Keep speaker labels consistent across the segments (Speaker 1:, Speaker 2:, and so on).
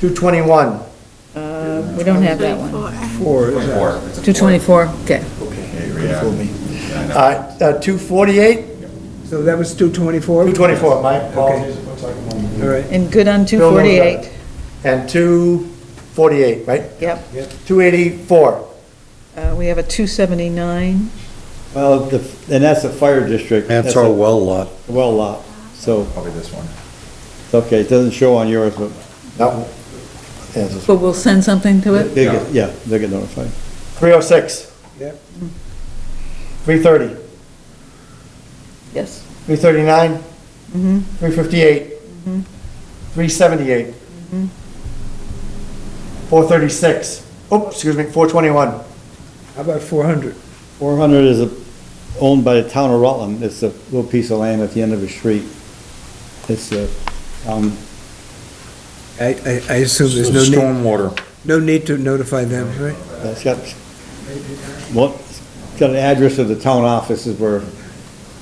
Speaker 1: Two twenty-one.
Speaker 2: Uh, We don't have that one.
Speaker 1: Four, is that?
Speaker 3: Four. It's a
Speaker 2: Two
Speaker 3: four.
Speaker 2: twenty-four, okay.
Speaker 3: Yeah.
Speaker 1: Fool me. Uh, two forty-eight,
Speaker 4: So that was 224?
Speaker 1: two twenty-four, my apologies.
Speaker 4: All right.
Speaker 2: And good on two
Speaker 1: Bill knows that.
Speaker 2: forty-eight,
Speaker 1: And two forty-eight, right?
Speaker 2: yep.
Speaker 1: Two eighty-four.
Speaker 2: Uh, We have a two seventy-nine,
Speaker 5: Well, the, and that's a fire district.
Speaker 6: That's our well lot.
Speaker 5: a Well lot, so,
Speaker 3: Probably this one.
Speaker 5: it's okay, it doesn't show on yours, but
Speaker 1: No. Yes,
Speaker 2: but we'll send something to it?
Speaker 5: they get, yeah, they get notified.
Speaker 1: three oh six.
Speaker 4: Yep.
Speaker 1: Three thirty,
Speaker 2: Yes.
Speaker 1: three thirty-nine, three fifty-eight, three seventy-eight, four thirty-six, oops, excuse me, four twenty-one.
Speaker 4: How about 400?
Speaker 5: Four hundred is a- owned by the town of Rutland, it's a little piece of land at the end of a street. It's a, um,
Speaker 4: I, I- I assume there's no need,
Speaker 6: Stormwater.
Speaker 4: no need to notify them, right?
Speaker 5: it's got, what, it's got an address of the town office is where,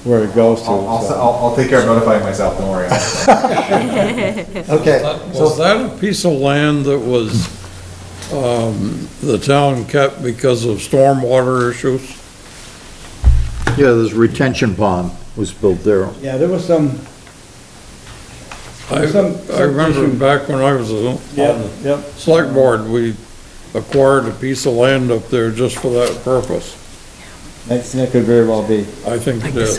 Speaker 5: where it goes to.
Speaker 3: I'll, I'll,
Speaker 5: so.
Speaker 3: I'll- I'll take care of notifying myself, don't worry.
Speaker 1: Okay,
Speaker 7: Was that a piece of land that was, um, the town kept because of stormwater issues?
Speaker 6: Yeah, this retention pond was built there.
Speaker 5: Yeah, there was some,
Speaker 7: I,
Speaker 5: Some-
Speaker 7: I remember
Speaker 5: some-
Speaker 7: back when I was on
Speaker 5: yeah,
Speaker 3: Um,
Speaker 7: the
Speaker 5: yeah,
Speaker 7: select board, we acquired a piece of land up there just for that purpose.
Speaker 5: that, that could very well be.
Speaker 7: I think it is.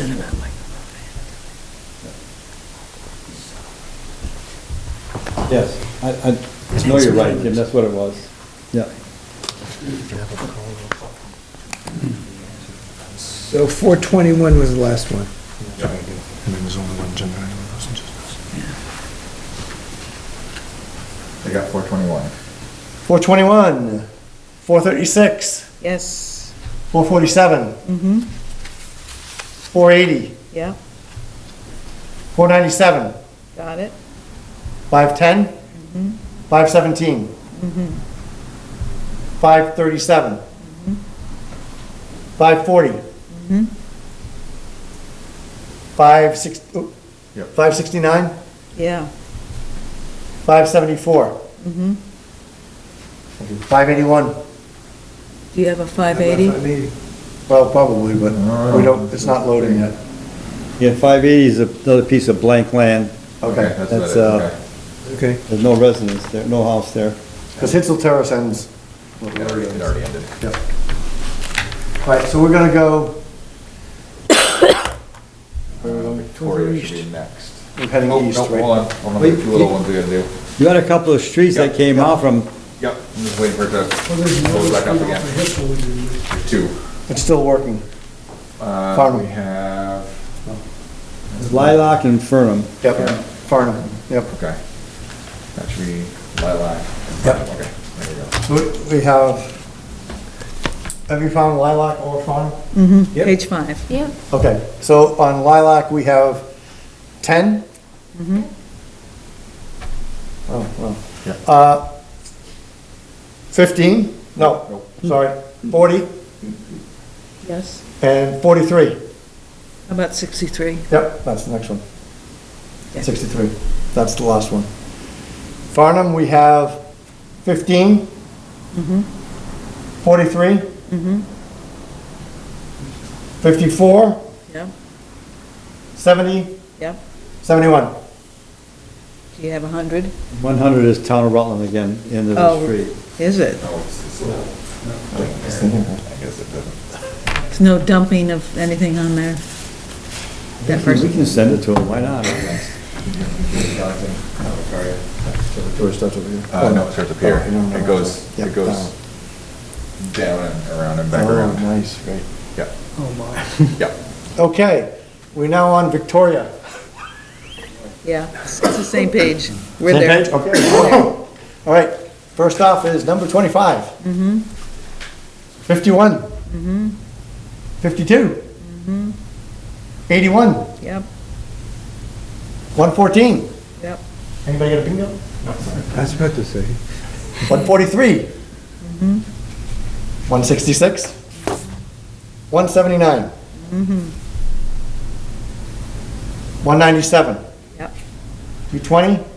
Speaker 5: Yes, I, I know you're right, Jim, that's what it was. Yeah,
Speaker 4: So 421 was the last one.
Speaker 3: I got four twenty-one.
Speaker 1: four twenty-one, four thirty-six,
Speaker 2: Yes,
Speaker 1: Four
Speaker 2: Mhm.
Speaker 1: Four eighty,
Speaker 2: yeah,
Speaker 1: four ninety-seven,
Speaker 2: got it.
Speaker 1: five ten, five seventeen, five thirty-seven, five forty, five six, oh,
Speaker 3: Yep.
Speaker 1: five sixty-nine,
Speaker 2: Yeah,
Speaker 1: five seventy-four, five eighty-one.
Speaker 2: do you have a five
Speaker 4: How
Speaker 2: eighty?
Speaker 4: about 580?
Speaker 1: Well, probably, but
Speaker 3: Oh,
Speaker 1: we don't, it's not loading yet.
Speaker 5: yeah, five eighty is another piece of blank land,
Speaker 1: Okay,
Speaker 3: That's
Speaker 5: That's,
Speaker 3: what it is,
Speaker 5: uh,
Speaker 3: okay.
Speaker 4: Okay.
Speaker 5: there's no residence there, no house there.
Speaker 1: because Hitzel Terrace ends.
Speaker 3: It already- it already ended.
Speaker 1: All right, so we're gonna go. Where are we going?
Speaker 3: Victoria should be next.
Speaker 1: We're heading
Speaker 3: Oh,
Speaker 1: east,
Speaker 3: no,
Speaker 1: right?
Speaker 3: Hold on, hold on,
Speaker 5: Wait,
Speaker 3: two little
Speaker 5: you-
Speaker 3: ones we gotta do.
Speaker 5: You had a couple of streets that
Speaker 3: Yeah,
Speaker 5: came out from,
Speaker 3: Yep, I'm just waiting for it to load back up again. There's Two.
Speaker 1: It's still working.
Speaker 3: Uh,
Speaker 1: Farm.
Speaker 3: We have,
Speaker 5: Lilac and Fernham.
Speaker 1: Yep, Farnham, yep.
Speaker 3: okay. That should be lilac.
Speaker 1: Yep.
Speaker 3: Okay, there we go.
Speaker 1: We- We have, have you found Lilac or Farnham?
Speaker 4: Yep.
Speaker 2: Page five,
Speaker 8: Yeah.
Speaker 1: Okay, so on Lilac, we have 10? Oh, well.
Speaker 3: Yeah.
Speaker 1: Uh, 15? No,
Speaker 3: Nope.
Speaker 1: sorry, 40
Speaker 2: yes.
Speaker 1: and 43.
Speaker 2: How About sixty-three,
Speaker 1: Yep, that's the next one.
Speaker 2: Yeah.
Speaker 1: 63, that's the last one. Farnham, we have 15, 43, 54,
Speaker 2: yeah,
Speaker 1: 70,
Speaker 2: yeah.
Speaker 1: 71.
Speaker 2: Do you have a hundred?
Speaker 5: One hundred is town of Rutland again, end of
Speaker 2: Oh.
Speaker 5: the street.
Speaker 2: Is it?
Speaker 3: I guess it doesn't.
Speaker 2: There's no dumping of anything on there? That
Speaker 5: We
Speaker 2: first,
Speaker 5: can send it to them, why not?
Speaker 1: George starts over here.
Speaker 3: Uh, no, it starts up here.
Speaker 1: Oh, no, no,
Speaker 3: It goes,
Speaker 1: no.
Speaker 3: it
Speaker 1: Yep,
Speaker 3: goes
Speaker 1: down.
Speaker 3: down and around and back
Speaker 1: Oh,
Speaker 3: around.
Speaker 1: nice, great.
Speaker 3: Yeah,
Speaker 4: Oh, my.
Speaker 3: yeah.
Speaker 1: Okay, we're now on Victoria.
Speaker 2: yeah, it's the same page. We're
Speaker 1: Same
Speaker 2: there.
Speaker 1: page? Okay. All right, first off is number 25.
Speaker 2: Mm-hmm.
Speaker 1: 51. 52.
Speaker 2: Mm-hmm.
Speaker 1: 81,
Speaker 2: Yep,
Speaker 1: 114.
Speaker 2: yep,
Speaker 1: Anybody got a bingo?
Speaker 4: I was about to say.
Speaker 1: 143.
Speaker 2: Mm-hmm.
Speaker 1: 166. 179.
Speaker 2: Mm-hmm.
Speaker 1: 197.
Speaker 2: yep,
Speaker 1: 220.